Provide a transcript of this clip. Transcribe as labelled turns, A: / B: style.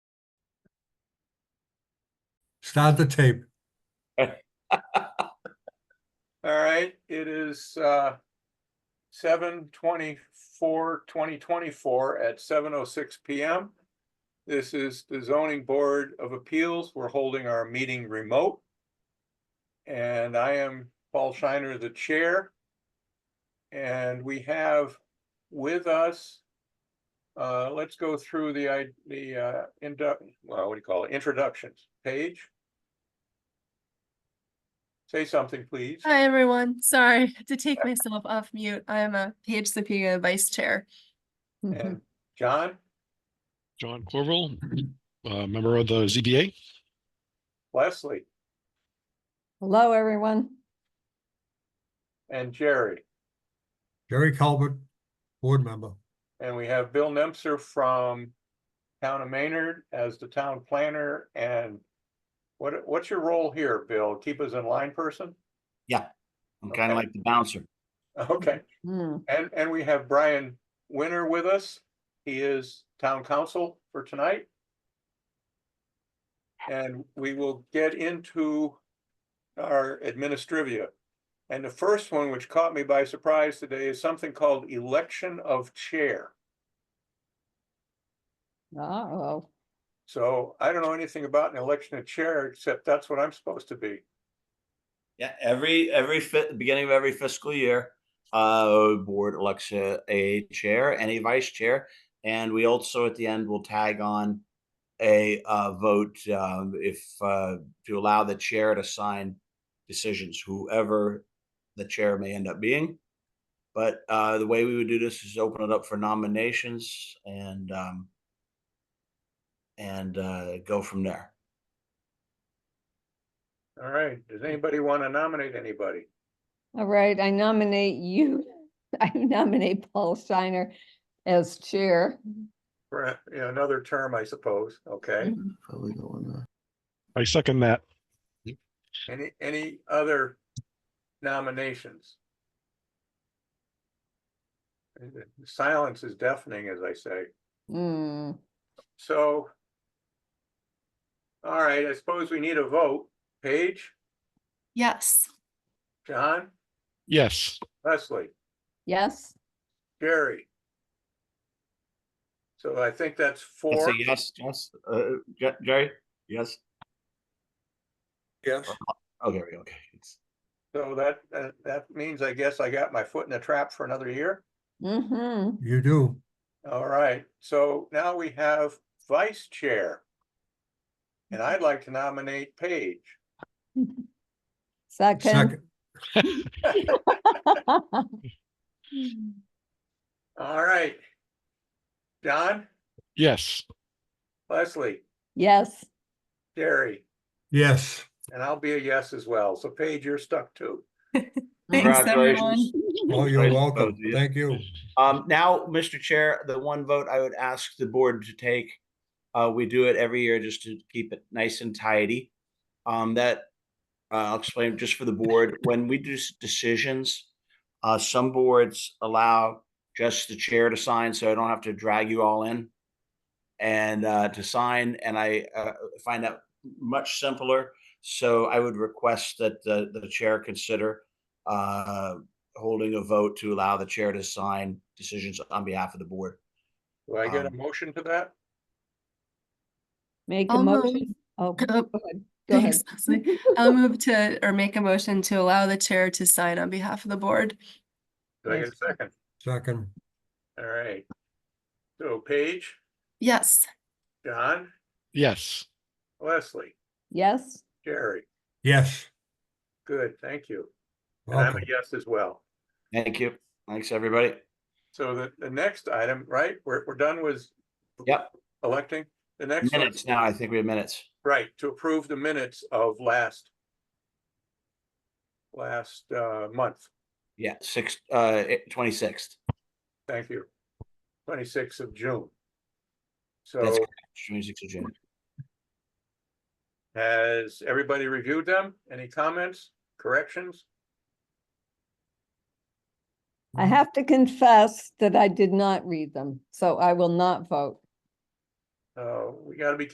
A: Start the tape.
B: All right, it is uh seven twenty-four, twenty twenty-four at seven oh six PM. This is the zoning board of appeals. We're holding our meeting remote. And I am Paul Shiner, the chair. And we have with us, uh, let's go through the, i- the, uh, indu- well, what do you call it? Introductions. Paige? Say something, please.
C: Hi, everyone. Sorry to take myself off mute. I'm a Paige Sapega Vice Chair.
D: Mm-hmm.
B: And John,
E: John Corville, uh, member of the ZBA.
B: Leslie,
D: Hello, everyone.
B: and Jerry.
A: Jerry Calvert, board member.
B: And we have Bill Nemser from Town of Maynard as the town planner and what, what's your role here, Bill? Keep us in line person?
F: I'm kind of
B: Okay.
F: like the bouncer.
B: Okay,
D: Hmm,
B: and, and we have Brian Winter with us. He is town council for tonight. And we will get into our administrivia. And the first one, which caught me by surprise today, is something called election of chair.
D: uh-oh.
B: So I don't know anything about an election of chair, except that's what I'm supposed to be.
F: Yeah, every every fi- beginning of every fiscal year, uh, board elects a, a chair and a vice chair, and we also at the end will tag on a uh, vote um, if uh, to allow the chair to sign decisions, whoever the chair may end up being. But uh, the way we would do this is open it up for nominations and um, and uh, go from there.
B: All right, does anybody want to nominate anybody?
D: All right, I nominate you. I nominate Paul Steiner as chair.
B: For a- you know, another term, I suppose, okay?
E: I second that.
B: Any, any other nominations? The Silence is deafening, as I say,
D: Hmm,
B: so. All right, I suppose we need a vote. Paige,
C: Yes.
B: John,
E: Yes,
B: Leslie?
D: yes,
B: Jerry. So I think that's
F: That's
B: four.
F: a yes, yes, uh, Je- Jerry, yes, Oh,
B: Yes.
F: okay, okay, okay. It's-
B: So that, that- that means I guess I got my foot in the trap for another year.
D: mm-hmm,
A: You do.
B: All right, so now we have vice chair. And I'd like to nominate Paige.
D: second.
A: Second,
B: All right. John,
E: yes,
B: Leslie,
D: Yes,
B: Jerry,
A: yes.
B: and I'll be a yes as well. So Paige, you're stuck too.
C: Thanks, everyone.
F: Congratulations.
A: Oh, you're
F: Right,
A: welcome.
F: both of you.
A: Thank you.
F: Um, now, Mr. Chair, the one vote I would ask the board to take, uh, we do it every year just to keep it nice and tidy. Um, that, uh, I'll explain just for the board, when we do s- decisions, uh, some boards allow just the chair to sign, so I don't have to drag you all in and, uh, to sign, and I, uh, find that much simpler. So I would request that the, the chair consider, uh, holding a vote to allow the chair to sign decisions on behalf of the board.
B: Do I get a
F: Um,
B: motion to that?
D: make a
C: I'll move.
D: motion. Oh, go
C: Oh,
D: ahead, go ahead.
C: Thanks, Um, Leslie. I'll move to, or make a motion to allow the chair to sign on behalf of the board.
B: Do I get a
D: Yes.
B: second?
A: Second,
B: All right. So Paige,
C: Yes.
B: John,
E: yes.
B: Leslie,
D: Yes,
B: Jerry,
A: yes.
B: good, thank you. And I'm a
A: Welcome.
B: yes as well.
F: Thank you. Thanks, everybody.
B: So the, the next item, right, we're, we're done with
F: Yep.
B: electing. The next, one-
F: Minutes now. I think we have minutes.
B: right, to approve the minutes of last last uh, month,
F: Yeah, six, uh, twenty-sixth,
B: thank you. Twenty-sixth of June.
F: That's
B: So
F: twenty-sixth of June.
B: has everybody reviewed them? Any comments, corrections?
D: I have to confess that I did not read them, so I will not vote.
B: Uh, we gotta be